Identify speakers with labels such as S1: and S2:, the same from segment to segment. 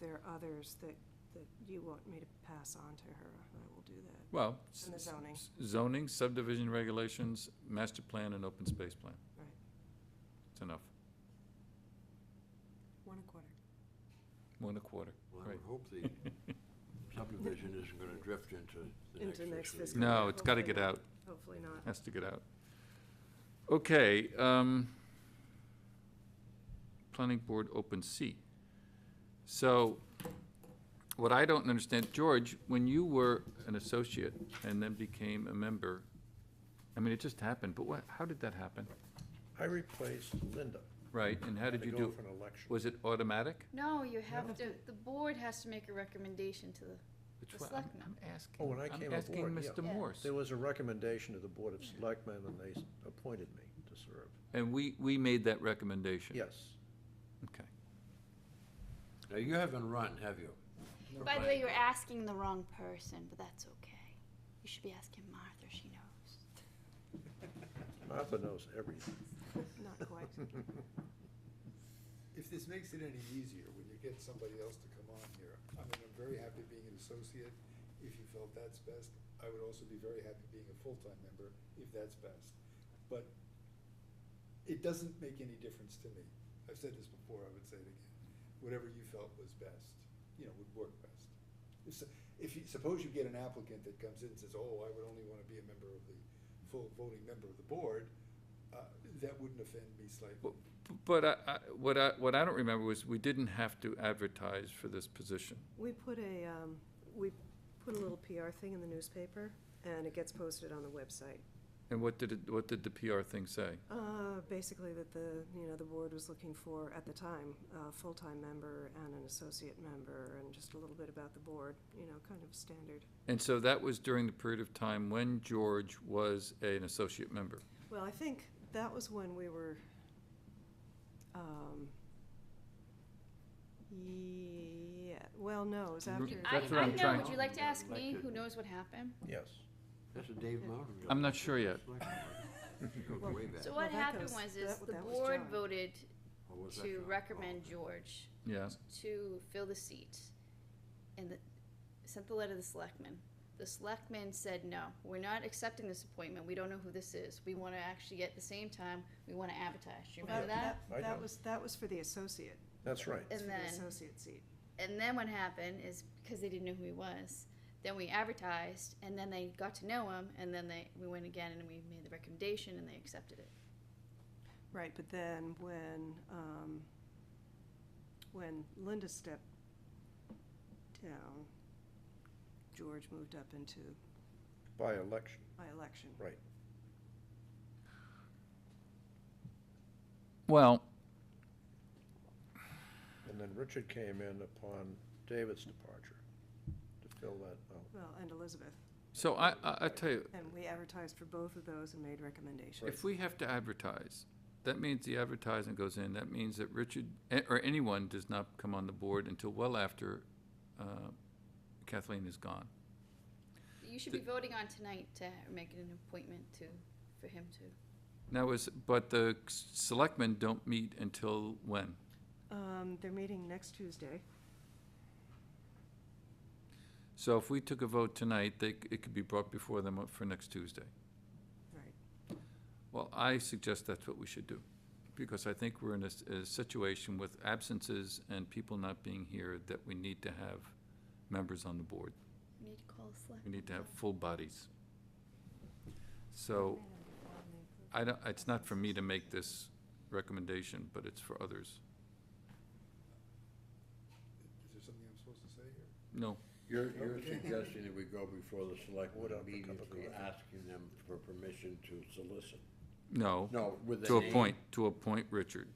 S1: there are others that, that you want me to pass on to her, I will do that.
S2: Well.
S1: And the
S2: s-
S1: zoning.
S2: s- Zoning, subdivision regulations, master plan, and open space plan.
S1: Right.
S2: It's enough,
S1: One a quarter.
S2: one a quarter.
S3: Well, I
S2: Right.
S3: would hope the subdivision isn't gonna drift into the next
S1: Into next
S3: fiscal
S1: fiscal
S3: year.
S2: No, it's gotta get
S1: Hopefully not.
S2: out,
S1: Hopefully not.
S2: has to get out. Okay, um, planning board open seat. So, what I don't understand, George, when you were an associate and then became a member, I mean, it just happened, but what, how did that happen?
S4: I replaced Linda.
S2: Right, and how did you
S4: To go
S2: do,
S4: for an election.
S2: was it automatic?
S5: No, you have to, the board has to make a recommendation to the,
S2: Which
S5: The
S2: one? I'm,
S5: selectmen.
S2: I'm asking.
S4: Oh, when I came aboard,
S2: I'm
S4: yeah.
S2: asking Mr.
S5: Yeah.
S2: Morse.
S4: There was a recommendation to the Board of Selectmen, and they s- appointed me to serve.
S2: And we, we made that recommendation?
S4: Yes.
S2: Okay.
S3: Now, you haven't run, have you?
S5: by the way, you're asking the wrong person, but that's okay. You should be asking Martha, she knows.
S4: Martha knows everything.
S1: Not quite.
S6: If this makes it any easier, when you get somebody else to come on here, I mean, I'm very happy being an associate, if you felt that's best. I would also be very happy being a full-time member, if that's best. But it doesn't make any difference to me. I've said this before, I would say it again. Whatever you felt was best, you know, would work best. If, s- if you, suppose you get an applicant that comes in and says, oh, I would only wanna be a member of the, full voting member of the board, uh, that wouldn't offend me slightly.
S2: Well, b- But I, I, what I, what I don't remember was we didn't have to advertise for this position.
S1: We put a, um, we put a little PR thing in the newspaper, and it gets posted on the website.
S2: And what did it, what did the PR thing say?
S1: Uh, basically that the, you know, the board was looking for, at the time, a full-time member and an associate member, and just a little bit about the board, you know, kind of standard.
S2: And so that was during the period of time when George was an associate member.
S1: Well, I think that was when we were, um, yeah, well, no, it was after.
S2: Mm,
S5: I,
S2: That's what
S5: I
S2: I'm
S5: know,
S2: trying-
S5: would you like to ask me,
S3: Elected.
S5: who knows what happened?
S4: Yes.
S3: That's a Dave Mountain. guy.
S2: I'm not sure yet.
S3: Goes way back.
S5: So
S1: Well,
S5: what
S1: that
S5: happened
S1: goes-
S5: was, is
S1: that-
S5: the
S1: that was
S5: board
S1: John.
S5: voted
S3: Or was that
S5: to
S3: John?
S5: recommend
S3: Oh.
S5: George
S2: Yeah,
S5: to fill the seat, and the, sent the letter to the selectmen. The selectmen said, no, we're not accepting this appointment, we don't know who this is, we wanna actually, at the same time, we wanna advertise, do you
S1: Well,
S5: remember that?
S4: I
S1: That
S4: do.
S1: was, that was for the associate,
S4: That's right.
S1: it's for
S5: And
S1: the
S5: then-
S1: associate seat.
S5: And then what happened is because they didn't know who he was, then we advertised, and then they got to know him, and then they we went again and we made the recommendation, and they accepted it.
S1: Right, but then when, um, when Linda stepped down, George moved up into
S4: By election.
S1: my election.
S4: Right.
S2: well,
S4: And then Richard came in upon David's departure to fill that out.
S1: Well, and Elizabeth,
S2: so I, I, I tell you,
S1: and we advertised for both of those and made recommendations.
S2: If we have to advertise, that means the advertising goes in, that means that Richard, eh, or anyone does not come on the board until well after uh, Kathleen is gone.
S5: You should be voting on tonight to make an appointment to for him to.
S2: Now is, but the s- selectmen don't meet until when?
S1: Um, they're meeting next Tuesday.
S2: So if we took a vote tonight, they, c- it could be brought before them for next Tuesday.
S1: Right.
S2: Well, I suggest that's what we should do, because I think we're in a, s- a situation with absences and people not being here that we need to have members on the board.
S5: We need to call the select.
S2: We need to have full bodies. So, I don't, it's not for me to make this recommendation, but it's for others.
S6: Is there something I'm supposed to say here?
S2: No,
S3: You're, you're suggesting that we go before the
S4: Would
S3: selectmen
S4: have a cup of
S3: immediately
S4: coffee.
S3: asking them for permission to solicit?
S2: no.
S3: No, with the
S2: To
S3: name.
S2: appoint, to appoint Richard.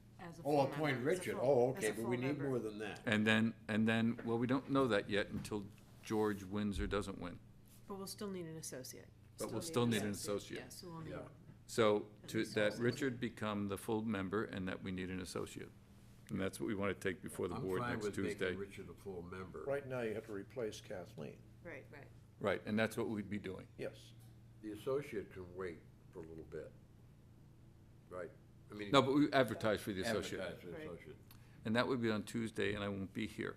S3: Oh, appoint Richard, oh, okay, but we need more than that.
S2: And then, and then, well, we don't know that yet until George wins or doesn't win.
S7: But we'll still need an associate.
S2: But we'll still need an associate.
S7: Yes, we'll need.
S3: Yeah.
S2: So to, that Richard become the full member and that we need an associate. And that's what we want to take before the
S3: I'm
S2: board
S3: fine
S2: next
S3: with making
S2: Tuesday.
S3: Richard a full member.
S4: Right now, you have to replace Kathleen.
S1: Right.
S7: Right.
S2: Right, and that's what we'd be doing.
S4: Yes.
S3: The associate can wait for a little bit, right? I mean,
S2: No, but we advertise for the associate.
S3: advertise for the
S1: Right.
S3: associate.
S2: And that would be on Tuesday, and I won't be here.